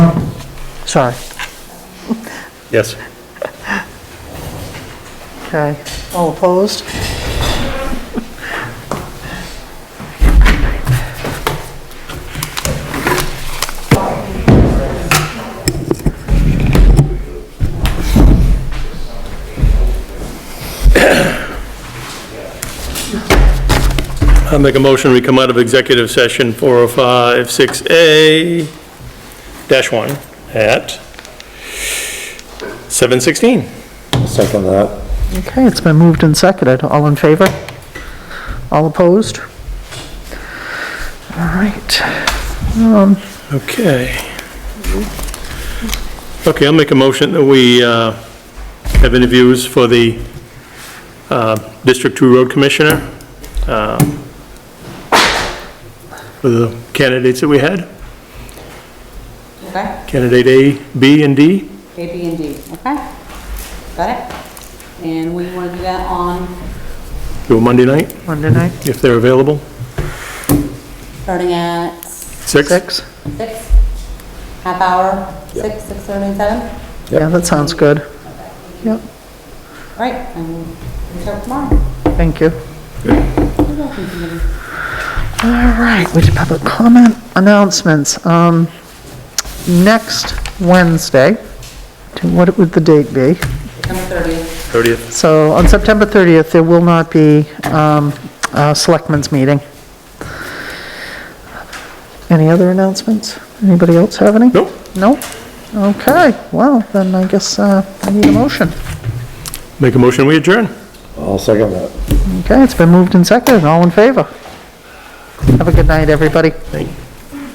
Sorry. Yes. Okay. All opposed? I'll make a motion, we come out of executive session 4056A dash 1 at 7:16. Second that. Okay, it's been moved and seconded. All in favor? All opposed? All right. Okay. Okay, I'll make a motion that we uh, have interviews for the uh, District 2 Road Commissioner. um, For the candidates that we had, Okay, candidate A, B, and D. A, B, and D, okay? Got it? And we want to do that on, Do a Monday night, Monday night, if they're available. starting at Six? six? six, half hour, six, six thirty, and seven? Yeah, that sounds good. Yep, All right, and we'll reach out tomorrow. thank you. All right, we did public comment announcements. Um, next Wednesday, to- what would the date be? September thirtieth, 30th. So on September 30th, there will not be um, a selectmen's meeting. Any other announcements? Anybody else have any? Nope. Nope? Okay, well, then I guess uh, I need a motion. Make a motion, we adjourn. I'll second that. Okay, it's been moved and seconded, all in favor? Have a good night, everybody. Thank you.